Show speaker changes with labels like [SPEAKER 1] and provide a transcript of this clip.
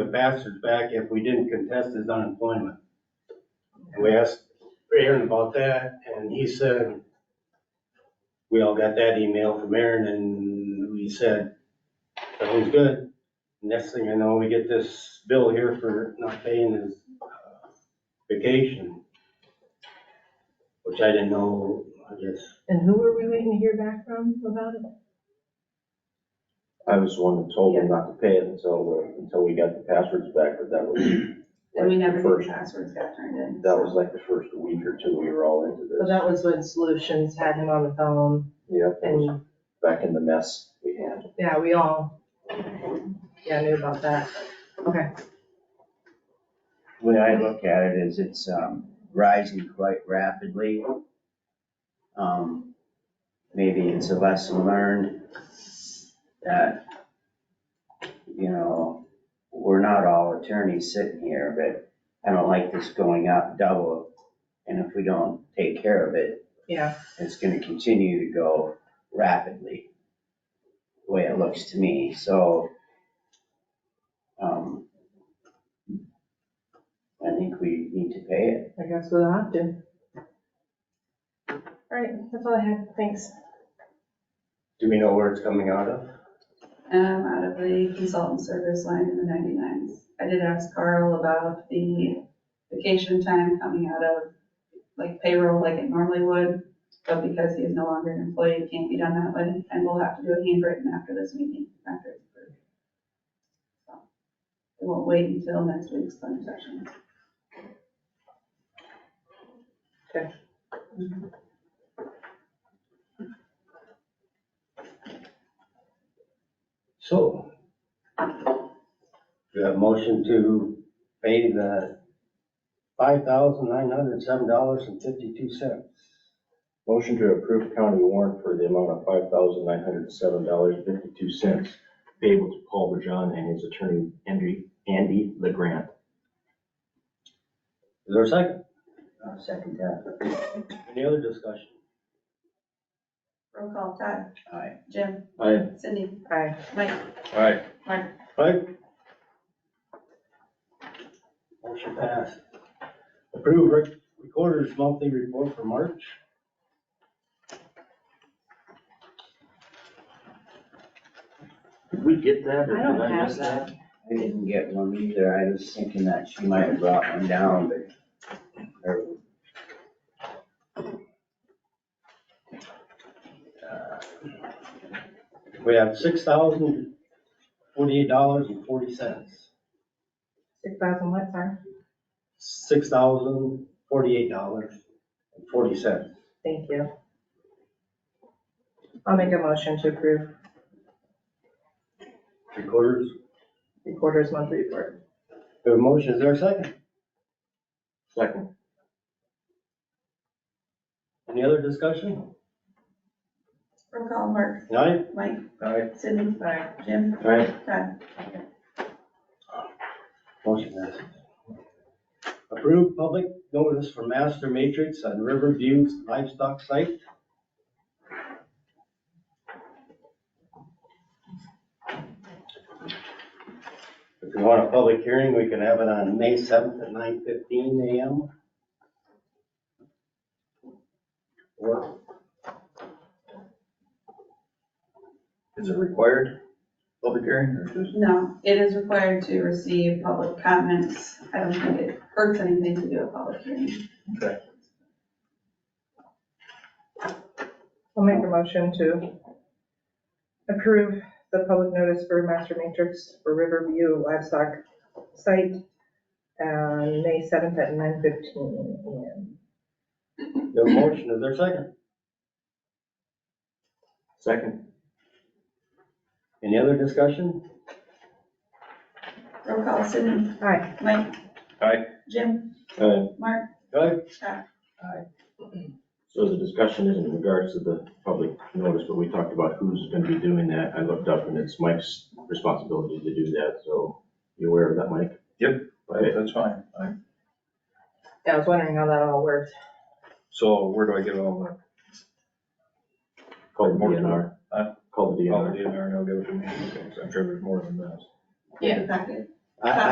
[SPEAKER 1] them bastards back if we didn't contest his unemployment. And we asked Aaron about that, and he said, we all got that email from Aaron, and we said, sounds good. Next thing I know, we get this bill here for not paying his uh, vacation, which I didn't know, I guess,
[SPEAKER 2] And who were we waiting to hear back from about it?
[SPEAKER 3] I was the one that told them not to pay it until, the- until we got the passwords back, but that was,
[SPEAKER 4] And we
[SPEAKER 3] Like
[SPEAKER 4] never,
[SPEAKER 3] first.
[SPEAKER 4] the passwords got turned in.
[SPEAKER 3] that
[SPEAKER 4] so.
[SPEAKER 3] was like the first week or two we were all into
[SPEAKER 2] Well,
[SPEAKER 3] this.
[SPEAKER 2] that was when Solutions had him on the phone
[SPEAKER 3] Yep, it was
[SPEAKER 2] and,
[SPEAKER 3] back in the mess we had.
[SPEAKER 2] yeah, we all, yeah, knew about that.
[SPEAKER 5] way I look at it is it's um, rising quite rapidly. Um, Maybe it's a lesson learned that, you know, we're not all attorneys sitting here, but I don't like this going up double. And if we don't take care of it,
[SPEAKER 2] Yeah,
[SPEAKER 5] it's gonna continue to go rapidly, the way it looks to me, so. um, I think we need to pay it.
[SPEAKER 2] I guess we'll have to. All right, that's all I had. Thanks.
[SPEAKER 1] do we know where it's coming out of?
[SPEAKER 4] Um, out of the consultant service line in the ninety-nines. I did ask Carl about the vacation time coming out of like payroll like it normally would, but because he is no longer an employee, it can't be done that way, and we'll have to do a handwritten after this meeting, after it's approved. So, It won't wait until next week's budget session.
[SPEAKER 1] So. Do you have a motion to pay the five thousand nine hundred seven dollars and fifty-two cents?
[SPEAKER 3] Motion to approve county warrant for the amount of five thousand nine hundred and seven dollars fifty-two cents payable to Paul Bajan and his attorney Andy, Andy legrand
[SPEAKER 1] Is there a second?
[SPEAKER 5] I'll second that.
[SPEAKER 1] Any other discussion?
[SPEAKER 4] Roll call, Todd,
[SPEAKER 5] Aye.
[SPEAKER 4] Jim,
[SPEAKER 3] Aye.
[SPEAKER 4] Cindy,
[SPEAKER 2] Aye.
[SPEAKER 4] Mike,
[SPEAKER 3] Aye.
[SPEAKER 4] Mark.
[SPEAKER 1] Right? Motion passed. Approve rec- recorder's monthly report for March.
[SPEAKER 3] Did we get that or
[SPEAKER 2] I don't
[SPEAKER 3] did I
[SPEAKER 2] have
[SPEAKER 3] miss that?
[SPEAKER 5] I didn't get one either, I was thinking that she might have brought one down, but. or-
[SPEAKER 1] We have six thousand forty-eight dollars and forty cents.
[SPEAKER 2] Six thousand what, sorry?
[SPEAKER 1] Six thousand forty-eight dollars and forty cents.
[SPEAKER 2] Thank you. I'll make a motion to approve
[SPEAKER 1] Recorder's
[SPEAKER 2] the quarter's monthly report.
[SPEAKER 1] The motion, is there a second?
[SPEAKER 3] Second.
[SPEAKER 1] Any other discussion?
[SPEAKER 4] Roll call, Mark,
[SPEAKER 1] None?
[SPEAKER 4] Mike,
[SPEAKER 3] Aye.
[SPEAKER 4] Cindy,
[SPEAKER 2] Aye.
[SPEAKER 4] Jim,
[SPEAKER 3] Aye.
[SPEAKER 4] Todd.
[SPEAKER 1] Motion passes. Approved public notice for master matrix on Riverview livestock site. If you want a public hearing, we can have it on May seventh at nine fifteen AM. Or
[SPEAKER 3] Is it required, public hearing, or just?
[SPEAKER 4] No, it is required to receive public comments. I don't think it hurts anything to do a public hearing.
[SPEAKER 2] I'll make a motion to approve the public notice for master matrix for Riverview livestock site, uh, May seventh at nine fifteen AM.
[SPEAKER 1] the motion, is there a second?
[SPEAKER 3] Second.
[SPEAKER 1] Any other discussion?
[SPEAKER 4] Roll call, Sydney,
[SPEAKER 2] Aye,
[SPEAKER 4] Mike.
[SPEAKER 3] Aye.
[SPEAKER 4] Jim,
[SPEAKER 3] Aye.
[SPEAKER 4] Mark,
[SPEAKER 1] Good?
[SPEAKER 4] Todd.
[SPEAKER 3] So the discussion is in regards to the public notice, but we talked about who's gonna be doing that. I looked up and it's Mike's responsibility to do that, so you aware of that, Mike?
[SPEAKER 6] Yep.
[SPEAKER 3] Okay,
[SPEAKER 6] That's fine. I-
[SPEAKER 2] yeah, I was wondering how that all worked.
[SPEAKER 6] So where do I get all the,
[SPEAKER 3] call the DNR.
[SPEAKER 6] Huh?
[SPEAKER 3] Call the
[SPEAKER 6] all the
[SPEAKER 3] DNR.
[SPEAKER 6] DNR and I'll give it to me? Okay, 'cause I'm sure there's more than that.
[SPEAKER 4] Yeah. Packet.
[SPEAKER 1] I-